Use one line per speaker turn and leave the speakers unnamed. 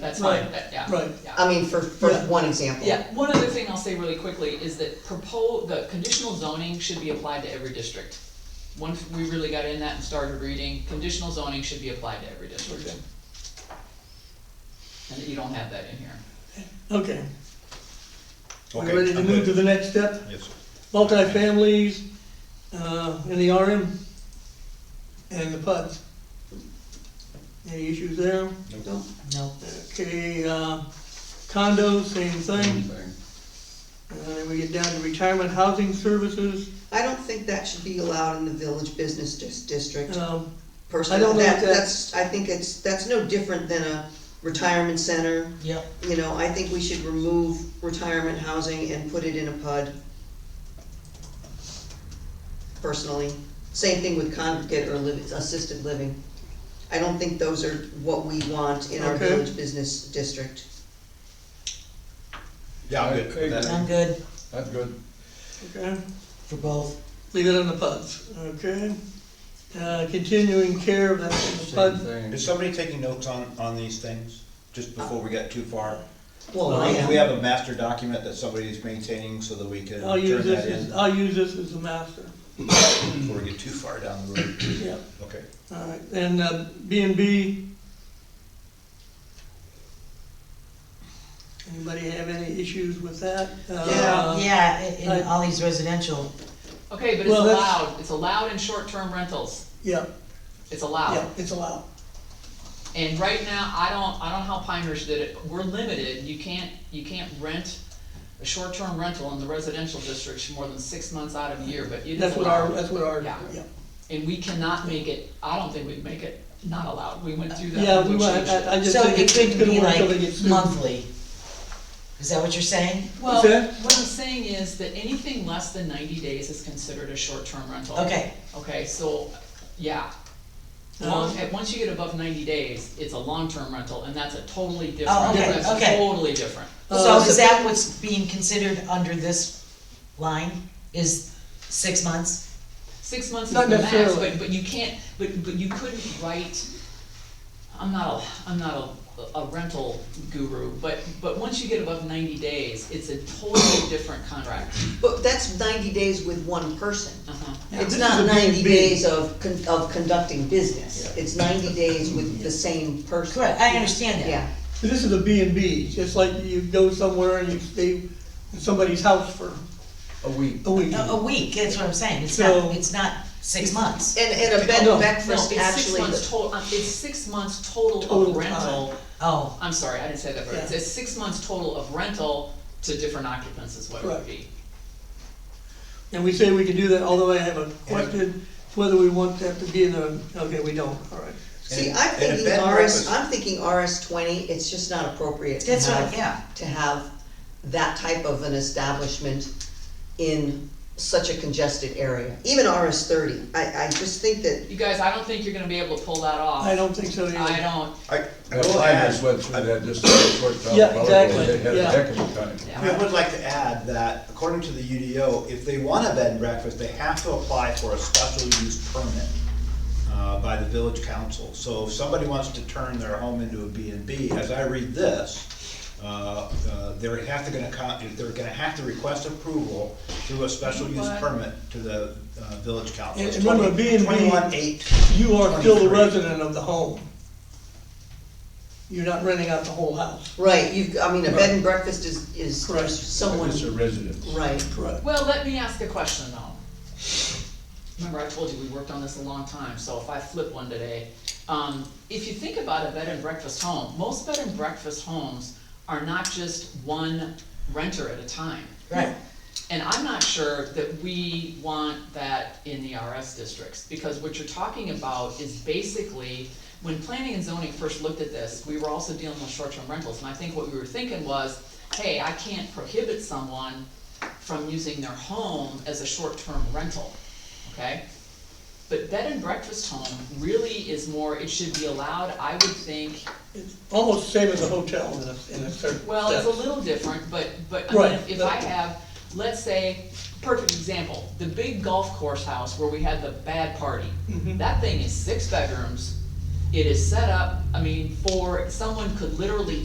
That's fine,
Right,
that, yeah.
right.
Yeah.
I mean, for, for
Yeah.
one example.
Yeah, one other thing I'll say really quickly is that propos, the conditional zoning should be applied to every district. Once we really got in that and started reading, conditional zoning should be applied to every district.
Okay.
And you don't have that in here.
Okay, we
Okay,
ready to
I'm
move to
good.
the next step?
Yes, sir.
Multifamilies, uh, in the RM and the PUDs. Any issues there?
Nope.
No.
Okay, uh, condos, same thing. And then we get down to retirement housing services.
I don't think that should be allowed in the village business dis- district.
Um,
Personally,
I don't know
that,
if that-
that's, I think it's, that's no different than a retirement center.
Yep.
You know, I think we should remove retirement housing and put it in a PUD. Personally, same thing with congregate or liv assisted living. I don't think those are what we want in our
Okay.
village business district.
Yeah, I'm good. with that.
I'm good
I'm good.
okay,
for both.
leave it on the PUDs, okay? Uh, continuing care, that's the
Same
PUD.
thing.
Is somebody taking notes on, on these things, just before we get too far?
Well, I
We
am,
have a master document that somebody's maintaining so that we can
I'll use
turn
this
that
as,
in
I'll use this as a master.
before we get too far down the road.
Yeah.
Okay.
All right, and uh, B and B. Anybody have any issues with that? Uh,
Yeah, i-
I-
in all these residential,
Okay, but it's
Well, that's-
allowed, it's allowed in short-term rentals,
Yeah,
it's
yeah,
allowed.
it's allowed.
And right now, I don't, I don't know how Pinehurst did it, we're limited, you can't, you can't rent a short-term rental in the residential districts more than six months out of the year, but it is allowed.
That's what our, that's what our, yeah.
Yeah. And we cannot make it, I don't think we'd make it not allowed, we went through that.
Yeah, we,
when
want-
changed it.
I, I just
so
think
it
it's it's
could
gonna
be
work
like
till they get sued.
monthly. Is that what you're saying?
Well,
Okay.
what I'm saying is that anything less than ninety days is considered a short-term rental.
Okay, Um,
Okay, so, yeah. Long, and once you get above ninety days, it's a long-term rental, and that's a totally different,
Oh, okay,
that's
okay.
totally different.
so
Uh,
is that what's being considered under this line, is six months?
Six months is
Not
the max,
necessarily.
but, but you can't, but, but you couldn't write, I'm not a, I'm not a, a rental guru, but, but once you get above ninety days, it's a totally different contract.
but that's ninety days with one person.
Uh-huh.
It's
this
not
is a
ninety
B&B.
days of, con- of conducting business, it's ninety days with the same person.
Correct, I understand that.
Yeah,
So This is a B and B, just like you go somewhere and you stay in somebody's house for
A week.
a week.
A, a week, that's what I'm saying, it's
So-
not, it's not six months.
and, and a bed
No,
and
No, it's
breakfast
six
actually,
months total, it's six months total
Total
of
time.
rental,
Oh,
I'm sorry, I didn't say that, but it's
Yeah.
it's six months total of rental to different occupants is what it
Correct.
would be.
And we say we can do that, although I have a question, whether we want that to be in a, okay, we don't, all right.
see,
And-
I'm
and a
thinking
bed and
RS,
breakfast-
I'm thinking RS twenty, it's just not appropriate to
that's what,
have,
yeah,
to have that type of an establishment in such a congested area, even RS thirty, I, I just think that,
You guys, I don't think you're gonna be able to pull that off.
I don't think so either.
I don't,
I, I
That
will
Pinehurst
add,
went through that just a short time
Yeah,
ago. They
exactly,
had a
yeah.
heck of a time.
yeah.
I would like to add that according to the UDO, if they want a bed and breakfast, they have to apply for a special use permit uh, by the village council. So if somebody wants to turn their home into a B and B, as I read this, uh, uh, they're have to gonna, con- they're gonna have to request approval through a special use
But-
permit to the uh, village council.
And
It's
remember,
20
B&B
21.8.
You are still the
23.
resident of the home. You're not renting out the whole house.
right, you've, I mean, a bed and breakfast is, is
Correct.
someone,
It's a residence.
right.
Correct.
Well, let me ask a question though. Remember, I told you we worked on this a long time, so if I flip one today, um, if you think about a bed and breakfast home, most bed and breakfast homes are not just one renter at a time.
right.
And I'm not sure that we want that in the RS districts, because what you're talking about is basically, when planning and zoning first looked at this, we were also dealing with short-term rentals, and I think what we were thinking was, hey, I can't prohibit someone from using their home as a short-term rental, okay? But bed and breakfast home really is more, it should be allowed, I would think,
It's almost the same as a hotel in a, in a certain
well, it's a
sense.
little different, but, but, I
Right,
mean, if- if I
but-
have, let's say, perfect example, the big golf course house where we had the bad party.
Mhm.
That thing is six bedrooms, it is set up, I mean, for, someone could literally